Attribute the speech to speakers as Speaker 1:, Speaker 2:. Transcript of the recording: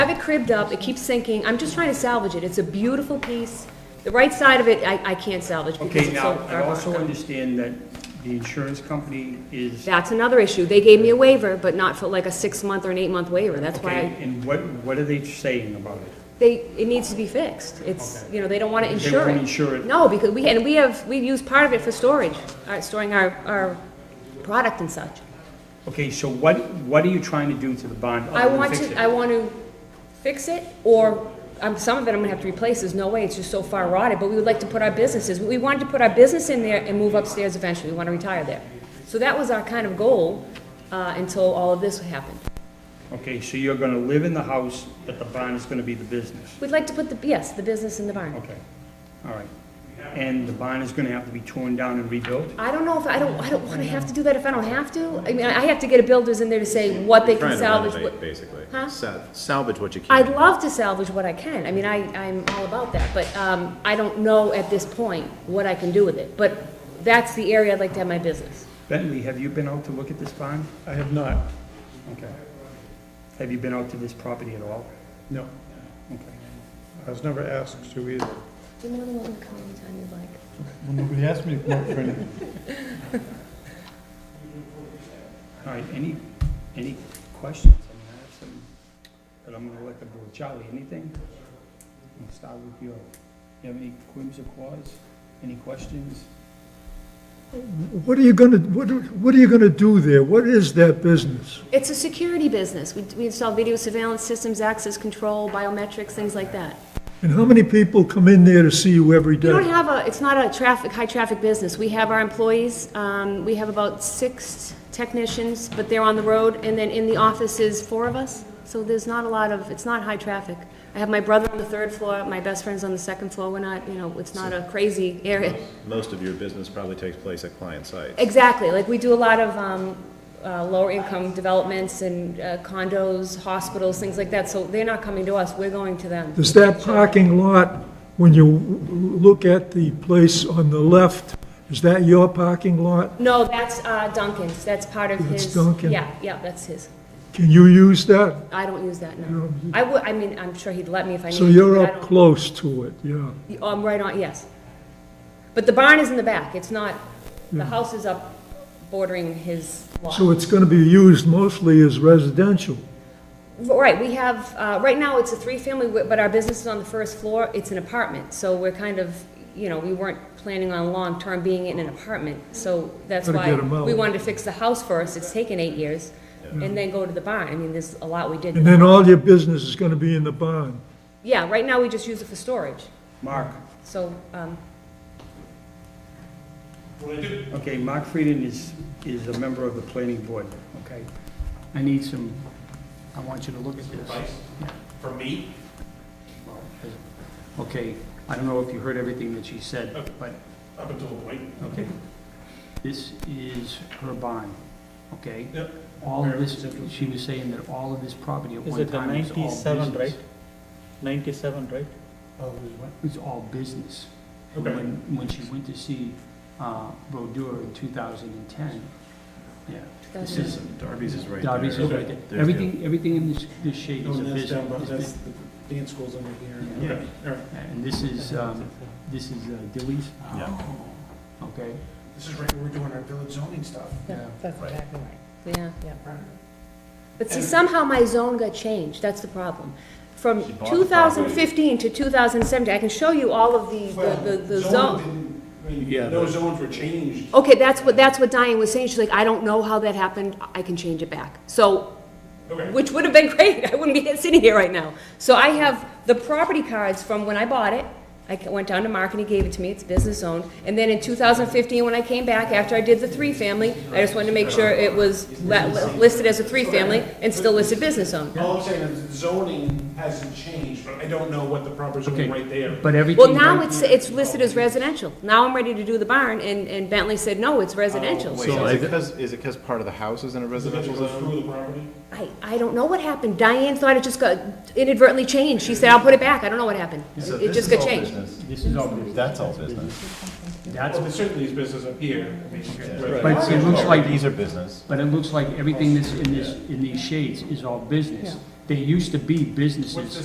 Speaker 1: have it cribbed up, it keeps sinking, I'm just trying to salvage it, it's a beautiful piece. The right side of it, I, I can't salvage because
Speaker 2: Okay,
Speaker 1: it's
Speaker 2: now,
Speaker 1: so...
Speaker 2: I also understand that the insurance company is,
Speaker 1: That's another issue, they gave me a waiver, but not for like a six-month or an eight-month waiver, that's why I
Speaker 2: okay, and what, what are they saying about it?
Speaker 1: They, it needs to be fixed. It's,
Speaker 2: Okay.
Speaker 1: you know, they don't want to
Speaker 2: They
Speaker 1: insure
Speaker 2: won't
Speaker 1: it.
Speaker 2: insure it.
Speaker 1: No, because we, and we have, we've used part of it for storage, uh, storing our, our product and such.
Speaker 2: Okay, so what, what are you trying to do to the bond
Speaker 1: I
Speaker 2: other
Speaker 1: want
Speaker 2: than Um, fix it?
Speaker 1: to, I want to fix it, or, um, some of it I'm gonna have to replace, there's no way, it's just so far rotted, but we would like to put our businesses, we wanted to put our business in there and move upstairs eventually, we want to retire there. So that was our kind of goal, uh, until all of this happened.
Speaker 2: Okay, so you're gonna live in the house, but the bond is gonna be the business?
Speaker 1: We'd like to put the, yes, the business in the barn.
Speaker 2: Okay, all right. And the bond is gonna have to be torn down and rebuilt?
Speaker 1: I don't know if, I don't, I don't wanna have to do that if I don't have to. I mean, I have to get a builders in there to say what they
Speaker 3: Trying
Speaker 1: can
Speaker 3: to
Speaker 1: salvage.
Speaker 3: renovate,
Speaker 1: what-
Speaker 3: Basically.
Speaker 1: Huh?
Speaker 3: Sa- Salvage what you can.
Speaker 1: I'd love to salvage what I can. I mean, I, I'm all about that, but, um, I don't know at this point what I can do with it. But that's the area I'd like to have my business.
Speaker 2: Bentley, have you been out to look at this bond?
Speaker 4: I have not,
Speaker 2: Okay. Have you been out to this property at all?
Speaker 4: no.
Speaker 2: Okay.
Speaker 4: I was never asked to either.
Speaker 1: Do you know the one come anytime you'd like?
Speaker 4: Well, nobody asked me to come up for any.
Speaker 2: All right, any, any questions? I mean, I have some, but I'm gonna let the board, Charlie, anything? I'll start with you. You have any quims or quas? Any questions?
Speaker 5: What are you gonna, what, are- what are you gonna do there? What is that business?
Speaker 1: It's a security business. We, we install video surveillance systems, access control, biometrics, things like that.
Speaker 5: And how many people come in there to see you every
Speaker 1: We don't
Speaker 5: day?
Speaker 1: have a, it's not a traffic, high-traffic business. We have our employees, um, we have about six technicians, but they're on the road, and then in the office is four of us, so there's not a lot of, it's not high traffic. I have my brother on the third floor, my best friend's on the second floor, we're not, you know, it's not a crazy area.
Speaker 3: Most of your business probably takes place at client sites.
Speaker 1: Exactly, like, we do a lot of, um, uh, lower-income developments and uh, condos, hospitals, things like that, so they're not coming to us, we're going to them.
Speaker 5: Does that parking lot, when you look at the place on the left, is that your parking lot?
Speaker 1: No, that's uh, Duncan's, that's part of
Speaker 5: That's
Speaker 1: his.
Speaker 5: Duncan.
Speaker 1: Yeah, yeah, that's his.
Speaker 5: Can you use that?
Speaker 1: I don't use that,
Speaker 5: You
Speaker 1: no.
Speaker 5: don't use-
Speaker 1: I would, I mean, I'm sure he'd let me if I needed to.
Speaker 5: So you're
Speaker 1: but I
Speaker 5: up
Speaker 1: don't- Oh,
Speaker 5: close to it, yeah.
Speaker 1: I'm right on, yes. But the barn is in the back, it's not, the house is up bordering his lot.
Speaker 5: So it's gonna be used mostly as residential.
Speaker 1: Right, we have, uh, right now, it's a three-family, wi- but our business is on the first floor, it's an apartment, so we're kind of, you know, we weren't planning on long-term being in an apartment, so that's
Speaker 5: Gotta
Speaker 1: why
Speaker 5: get 'em out.
Speaker 1: we wanted to fix the house first, it's taken eight years, and then go to the barn, I mean, there's a lot we did.
Speaker 5: And then all your business is gonna be in the barn.
Speaker 1: Yeah, right now, we just use it for storage,
Speaker 2: Mark?
Speaker 1: so, um,
Speaker 2: Okay, Mark Frieden is, is a member of the planning board, okay? I need some, I want you to look at this.
Speaker 6: For me?
Speaker 2: Okay, I don't know if you heard everything that she said, but
Speaker 6: Up until a point.
Speaker 2: Okay. This is her bond, okay?
Speaker 6: Yep.
Speaker 2: All of this, she was saying that all of this property at
Speaker 7: Is
Speaker 2: one
Speaker 7: it the
Speaker 2: time was all business.
Speaker 7: 97, right? 97, right?
Speaker 2: It's all business. And
Speaker 6: Okay.
Speaker 2: When, when she went to see, uh, Brodeur in two thousand and ten, yeah. This is,
Speaker 3: Darby's is right there.
Speaker 2: Darby's is right there.
Speaker 3: There's
Speaker 2: Everything, everything in this, Oh, this shade is a
Speaker 4: that's down,
Speaker 2: business.
Speaker 4: that's
Speaker 2: is
Speaker 4: the dance school's under here.
Speaker 2: bu-
Speaker 6: Okay, all right.
Speaker 2: Yeah, And this is, um, this is uh, Dilly's,
Speaker 3: Yeah.
Speaker 2: okay?
Speaker 4: This is right where we're doing our village zoning stuff.
Speaker 8: That's exactly right.
Speaker 1: yeah.
Speaker 8: Yeah.
Speaker 1: But see, somehow my zone got changed, that's the problem. From
Speaker 3: She bought the
Speaker 1: 2015 to 2017, I can show you all of the, the, the- the zone.
Speaker 7: Yeah,
Speaker 6: No zones were changed.
Speaker 1: Okay, that's what, that's what Diane was saying, she's like, I don't know how that happened, I can change it back. So,
Speaker 6: Okay.
Speaker 1: which would have been great, I wouldn't be sitting here right now. So I have the property cards from when I bought it, I ca- went down to Mark and he gave it to me, it's business owned. And then in 2015, when I came back, after I did the three-family, I just wanted to make sure it was la- listed as a three-family and still listed business owned.
Speaker 6: All I'm saying is zoning hasn't changed, but I don't know what the proper
Speaker 2: Okay.
Speaker 6: zoning right there.
Speaker 2: But everything.
Speaker 1: Well, now
Speaker 2: right
Speaker 1: it's,
Speaker 2: here-
Speaker 1: it's listed as residential. Now I'm ready to do the barn, and, and Bentley said, no, it's residential.
Speaker 3: Oh, Wait, is it because, is it because part of the house is in a residential
Speaker 6: Goes
Speaker 3: zone?
Speaker 6: Through the property?
Speaker 1: I, I don't know what happened. Diane thought it just got inadvertently changed. She said, I'll put it back. I don't know what happened.
Speaker 3: So
Speaker 1: It
Speaker 3: this
Speaker 1: just got
Speaker 3: is all
Speaker 1: changed.
Speaker 3: business.
Speaker 2: This is all business.
Speaker 3: That's all business.
Speaker 2: That's,
Speaker 6: Well, there's certainly is business up here. I mean, right.
Speaker 2: but it looks like,
Speaker 3: These are business.
Speaker 2: but it looks like everything that's in this, in these shades is all business.
Speaker 7: there used to be businesses.